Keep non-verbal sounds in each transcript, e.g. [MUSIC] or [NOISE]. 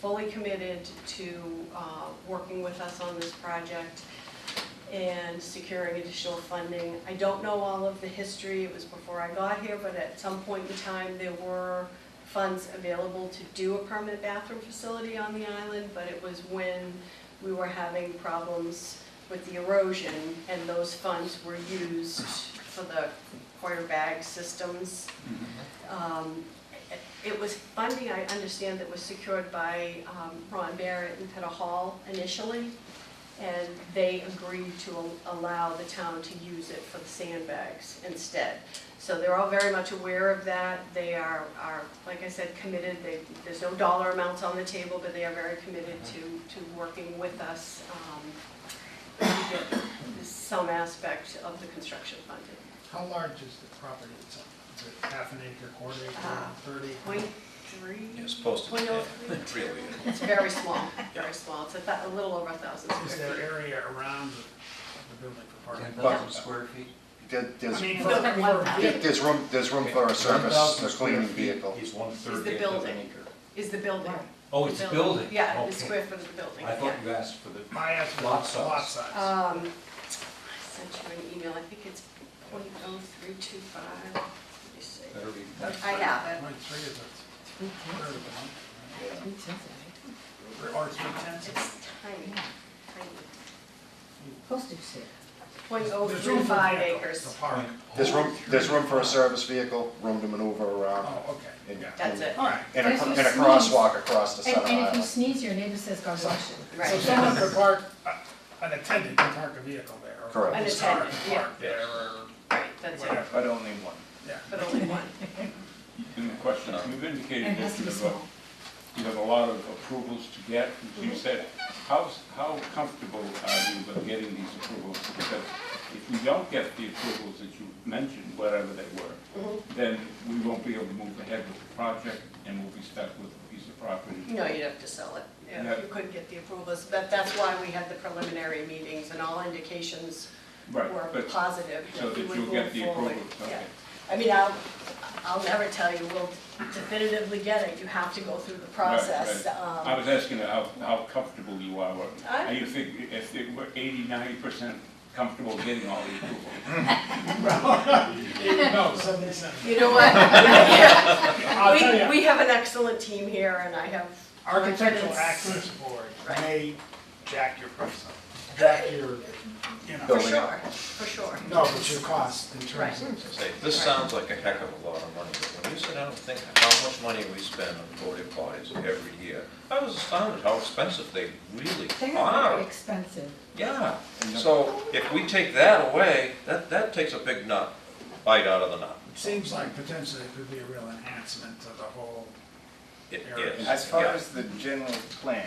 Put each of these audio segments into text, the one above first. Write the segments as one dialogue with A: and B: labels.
A: fully committed to uh, working with us on this project and securing additional funding. I don't know all of the history, it was before I got here, but at some point in time, there were funds available to do a permanent bathroom facility on the island, but it was when we were having problems with the erosion, and those funds were used for the quarter bag systems. Um, it- It was funding, I understand, that was secured by um, Ron Barrett and Peter Hall initially, and they agreed to al- allow the town to use it for the sandbags instead. So they're all very much aware of that, they are, are, like I said, committed, they, there's no dollar amounts on the table, but they are very committed to, to working with us um, to get some aspect of the construction funded.
B: How large is the property itself? Is it half an acre, quarter acre,
A: Ah.
B: thirty?
A: Point three?
C: It's posted,
A: Point oh
C: yeah,
A: three?
C: really.
A: [LAUGHS] It's very small,
D: [LAUGHS]
A: very small, it's a thou- a little over a thousand
B: Is
A: square
B: there
A: feet.
B: area around the- the building for
D: Ten
B: parking?
D: thousand square feet?
E: There-
B: I
E: There's,
B: mean,
A: For
B: for-
A: one
B: for-
A: thousand.
E: there- there's room, there's room for a service, a
D: 10,000
E: cleaning
D: square feet
E: vehicle.
D: Is one
A: Is the
D: thirtieth of an
A: building.
D: acre.
A: Is the building.
D: Oh, it's a building?
A: Yeah, the
D: Okay.
A: square foot of the building,
D: I thought
A: yeah.
D: you asked for the,
B: My ask
D: Lot
B: was
D: size.
B: lot size.
A: Um, I sent you an email, I think it's point oh three two five, let me see.
D: better be.
A: I have
B: Point three is a third of a
E: Yeah.
B: month, or three
A: it,
B: tenths.
A: it's tiny, tiny,
F: Postage stamp.
A: point oh
B: There's room
A: three
B: for
A: five
B: vehicle,
A: acres,
B: The park.
E: There's room, there's room for a service vehicle, room to maneuver around,
B: Oh, okay,
E: and,
B: yeah.
A: that's it,
B: All right.
E: and a,
F: If you
E: and a
F: sneeze-
E: crosswalk across the
F: And,
E: center
F: and if you
E: aisle.
F: sneeze, your neighbor says, God bless you.
B: So
A: right.
B: someone could park, uh, unattended, could park a vehicle there. or
E: Correct.
B: his car
A: Unattended,
B: could
A: yeah.
B: Park there, or
A: Right, that's it,
B: whatever,
G: But only one.
B: yeah.
A: but only one.
H: In the question, you've
F: And
H: indicated
F: it has
H: that
F: to
H: you
F: be
H: have, a-
F: small. Mm-hmm.
H: you have a lot of approvals to get, as you said. How, how comfortable are you with getting these approvals? Because if we don't get the approvals that you mentioned, whatever they were,
F: Mm-hmm.
H: then we won't be able to move ahead with the project and we'll be stuck with a piece of property.
A: No, you'd have to sell it,
H: Yeah.
A: if you couldn't get the approvals, but that's why we had the preliminary meetings, and all indications
H: Right,
A: were
H: but,
A: positive
H: so
A: that we
H: that
A: would
H: you'll get
A: move
H: the
A: forward.
H: approvals,
A: Yeah.
H: okay.
A: I mean, I'll, I'll never tell you we'll definitively get it, you have to go through the process.
H: right.
A: Um,
H: I was asking how, how comfortable you are, or,
A: I-
H: are you think, if it were eighty, ninety percent comfortable getting all the approvals?
B: No, seventy-seven.
A: You know what? [LAUGHS] We,
B: I'll tell you,
A: we have an excellent team here, and I have.
B: Architectural
A: confidence.
B: Access Board
A: Right.
B: may jack your price up, jack your, you
A: For
B: know,
E: Building
A: sure,
E: up.
A: for sure.
B: no, but your cost in terms
A: Right.
B: of.
D: Say, this sounds like a heck of a lot of money, but when you sit down and think how much money we spend on porta potties every year, I was astounded how expensive they really
F: They're very
D: are.
F: expensive.
D: Yeah, so if we take that away, that, that takes a big nut, bite out of the nut.
B: Seems like potentially it could be a real enhancement to the whole,
D: It
B: Eric.
D: is,
G: As far
D: yeah.
G: as the general plan,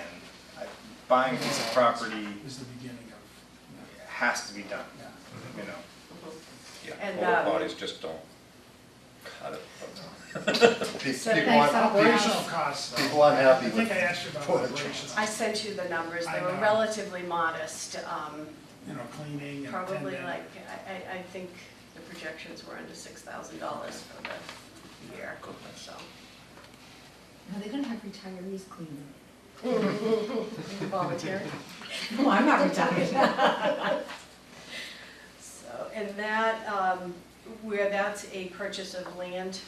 G: I- buying a piece of property
B: is the beginning of,
G: has to be done,
B: yeah.
G: you know.
D: Yeah,
A: And, um,
D: porta potties just don't cut it.
E: Pe-
A: So
E: People
F: thanks,
E: aren't,
F: Well,
B: Operational costs, though.
E: people aren't happy
B: I
E: with.
B: think I asked you about
E: Poor
B: operations,
A: I sent you the numbers, they
B: I
A: were
B: know.
A: relatively modest, um,
B: you know, cleaning and
A: probably
B: attending.
A: like, I, I, I think the projections were under six thousand dollars for the year, so.
F: Now, they're gonna have retirees cleaning.
A: Volunteer.
F: No, I'm not [LAUGHS] retired.
A: So, and that, um, where that's a purchase of land,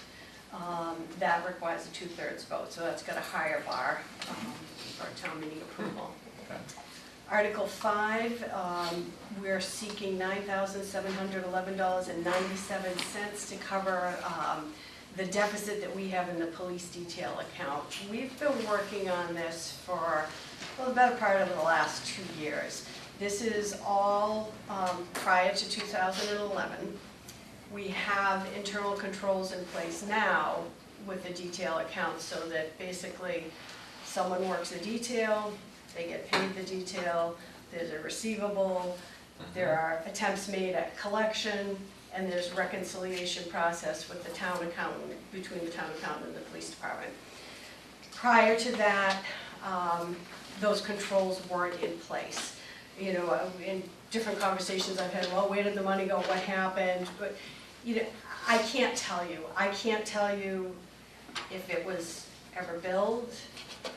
A: um, that requires a two-thirds vote, so that's got a higher bar um, for town meeting approval. Article five, um, we're seeking nine thousand seven hundred eleven dollars and ninety-seven cents to cover um, the deficit that we have in the police detail account. We've been working on this for, well, the better part of the last two years. This is all um, prior to 2011. We have internal controls in place now with the detail account so that basically someone works the detail, they get paid the detail, there's a receivable, there are attempts made at collection, and there's reconciliation process with the town accountant, between the town accountant and the police department. Prior to that, um, those controls weren't in place. You know, uh, in different conversations I've had, well, where did the money go, what happened? But, you know, I can't tell you. I can't tell you if it was ever billed,